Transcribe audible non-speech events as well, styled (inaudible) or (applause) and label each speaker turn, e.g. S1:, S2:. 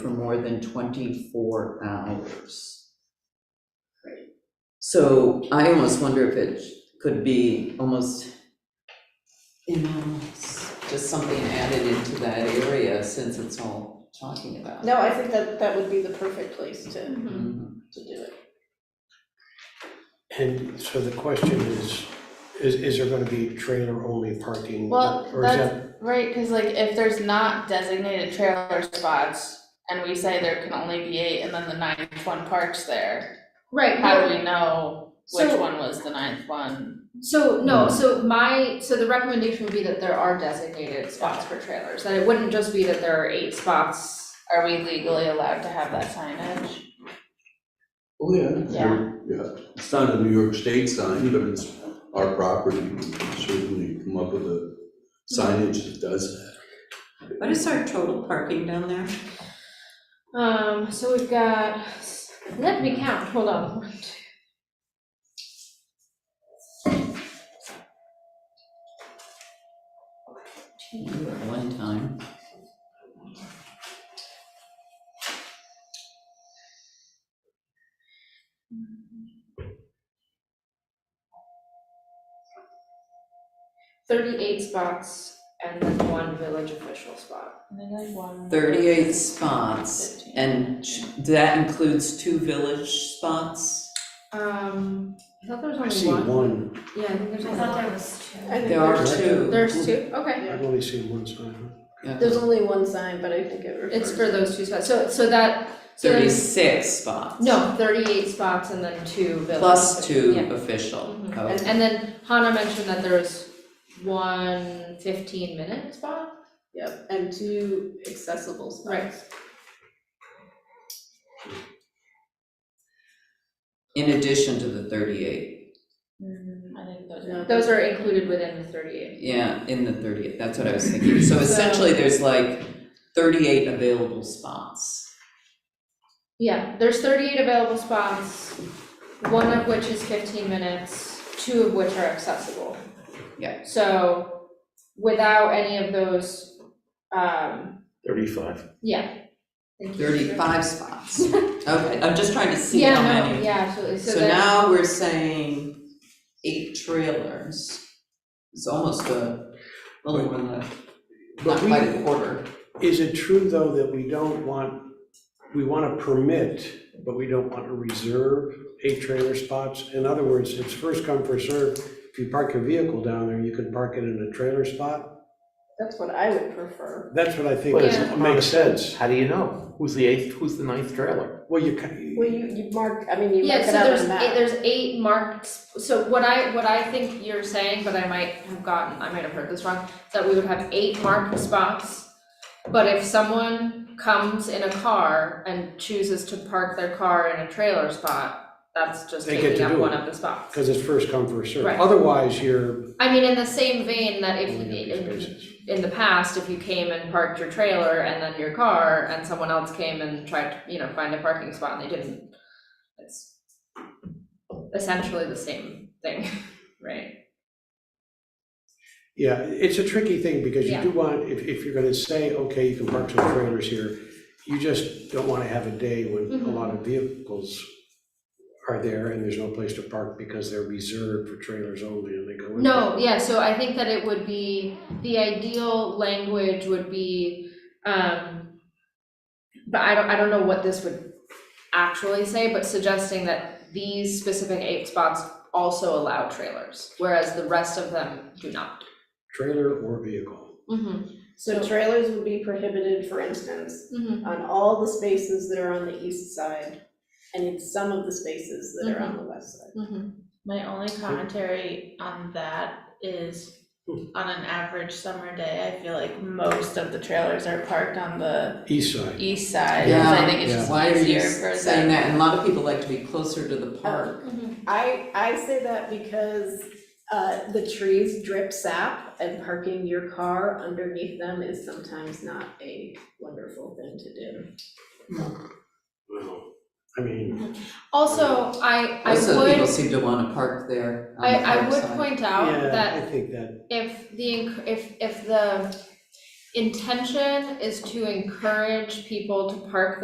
S1: for more than 24 hours. So I almost wonder if it could be almost, you know, s- just something added into that area since it's all talking about. Mm-hmm.
S2: No, I think that that would be the perfect place to, to
S3: Mm-hmm.
S2: do it.
S4: And so the question is, is, is there gonna be trailer-only parking?
S3: Well,
S4: or is that-
S3: Right, because like if there's not designated trailer spots and we say there can only be eight and then the ninth one parks there,
S5: Right,
S3: how
S5: no,
S3: do we know which
S5: So-
S3: one was the ninth one?
S5: so, no, so my, so the recommendation would be that there are designated spots for trailers, that it wouldn't just be that there are eight spots.
S3: Are we legally allowed to have that signage?
S6: Oh, yeah.
S3: Yeah.
S6: Yeah, it's not a New York State sign, but it's our property, we can certainly come up with a signage that does that.
S7: What is our total parking down there?
S5: Um, so we've got, let me count, hold on. One, two.
S1: You at one time.
S5: Thirty-eight spots and then one village official spot.
S3: I think like one.
S1: 38 spots,
S3: Fifteen.
S1: and ch- that includes two village spots?
S5: Um, I thought there was
S4: I
S5: only
S4: see
S5: one.
S4: one,
S5: Yeah, I think there's only one.
S7: was two.
S2: I think
S1: There are
S2: there's-
S1: two.
S5: There's two, okay.
S4: I've only seen one sign.
S1: Yeah.
S2: There's only one sign, but I think it refers.
S5: It's for those two spots, so, so that, so then-
S1: 36 spots.
S5: no, thirty-eight spots and then two village.
S1: Plus
S5: official-
S1: two
S5: yeah.
S1: official.
S5: Mhm.
S1: Oh,
S5: And then Hannah mentioned that there was one fifteen minute spot?
S2: Yep, and two accessible spots.
S5: Right.
S1: In addition to the 38,
S3: Mm, I think those
S2: No.
S3: are.
S5: Those are included within the thirty-eight.
S1: yeah, in the 38, that's what I was thinking. So essentially, there's like 38 available spots.
S5: Yeah, there's thirty-eight available spots, one of which is fifteen minutes, two of which are accessible.
S1: Yeah.
S5: So without any of those, um,
S4: Thirty-five.
S5: yeah. Thank you.
S1: 35 spots. Okay, I'm just trying to see how
S5: Yeah, no,
S1: many.
S5: yeah, absolutely, so
S1: So
S5: then,
S1: now we're saying eight trailers. It's almost a little more than, a- not
S4: But we-
S1: quite a quarter.
S4: Is it true, though, that we don't want, we wanna permit, but we don't want to reserve eight trailer spots? In other words, it's first come, first served. If you park your vehicle down there, you can park it in a trailer spot?
S2: That's what I would prefer.
S4: That's what I think
S8: Well,
S5: it's
S4: makes sense.
S8: How do you know? Who's the eighth, who's the ninth trailer?
S4: Well, you can.
S2: Well, you, you mark, I mean, you
S5: yeah,
S2: mark
S5: so
S2: it out
S5: there's
S2: on a map.
S5: eight, there's eight marked, s- so what I, what I think you're saying, but I might have gotten, I might have heard this wrong, is that we would have eight marked spots, but if someone comes in a car and chooses to park their car in a trailer spot, that's just
S4: They
S5: taking
S4: get to
S5: up
S4: do
S5: one
S4: it.
S5: of the spots.
S4: Because it's first come, first served.
S5: Right.
S4: Otherwise, you're
S5: I mean, in the same vein that if,
S4: only empty
S5: in,
S4: spaces.
S5: in the past, if you came and parked your trailer and then your car, and someone else came and tried to, you know, find a parking spot and they didn't, it's essentially the same thing, (laughs) right?
S4: Yeah, it's a tricky thing because you
S5: Yeah.
S4: do want, if, if you're gonna say, okay, you can park some trailers here, you just don't wanna have a day when a
S5: Mhm.
S4: lot of vehicles are there and there's no place to park because they're reserved for trailers only and they go in.
S5: No, yeah, so I think that it would be, the ideal language would be, um, but I don't, I don't know what this would actually say, but suggesting that these specific eight spots also allow trailers, whereas the rest of them do not.
S4: Trailer or vehicle.
S5: Mm-hmm,
S2: So trailers would be prohibited, for instance,
S5: mm-hmm.
S2: on all the spaces that are on the east side and in some of the spaces that
S5: Mm-hmm.
S2: are on the west side.
S3: My only commentary on that is, on an average summer day, I feel like most of the trailers are parked on the
S4: East side,
S3: east side, 'cause I think it's
S4: Yeah,
S3: just
S1: Why are you
S3: easier for them.
S1: saying that? And a lot of people like to be closer to the park.
S5: mm-hmm.
S2: I, I say that because, uh, the trees drip sap and parking your car underneath them is sometimes not a wonderful thing to do.
S4: I mean,
S5: Also, I, I
S1: Also, people
S5: would,
S1: seem to wanna park there on
S5: I,
S1: the
S5: I
S1: park
S5: would
S1: side.
S5: point out
S4: yeah, I
S5: that
S4: think that,
S5: if the, inc- if, if the, intention is to encourage people to park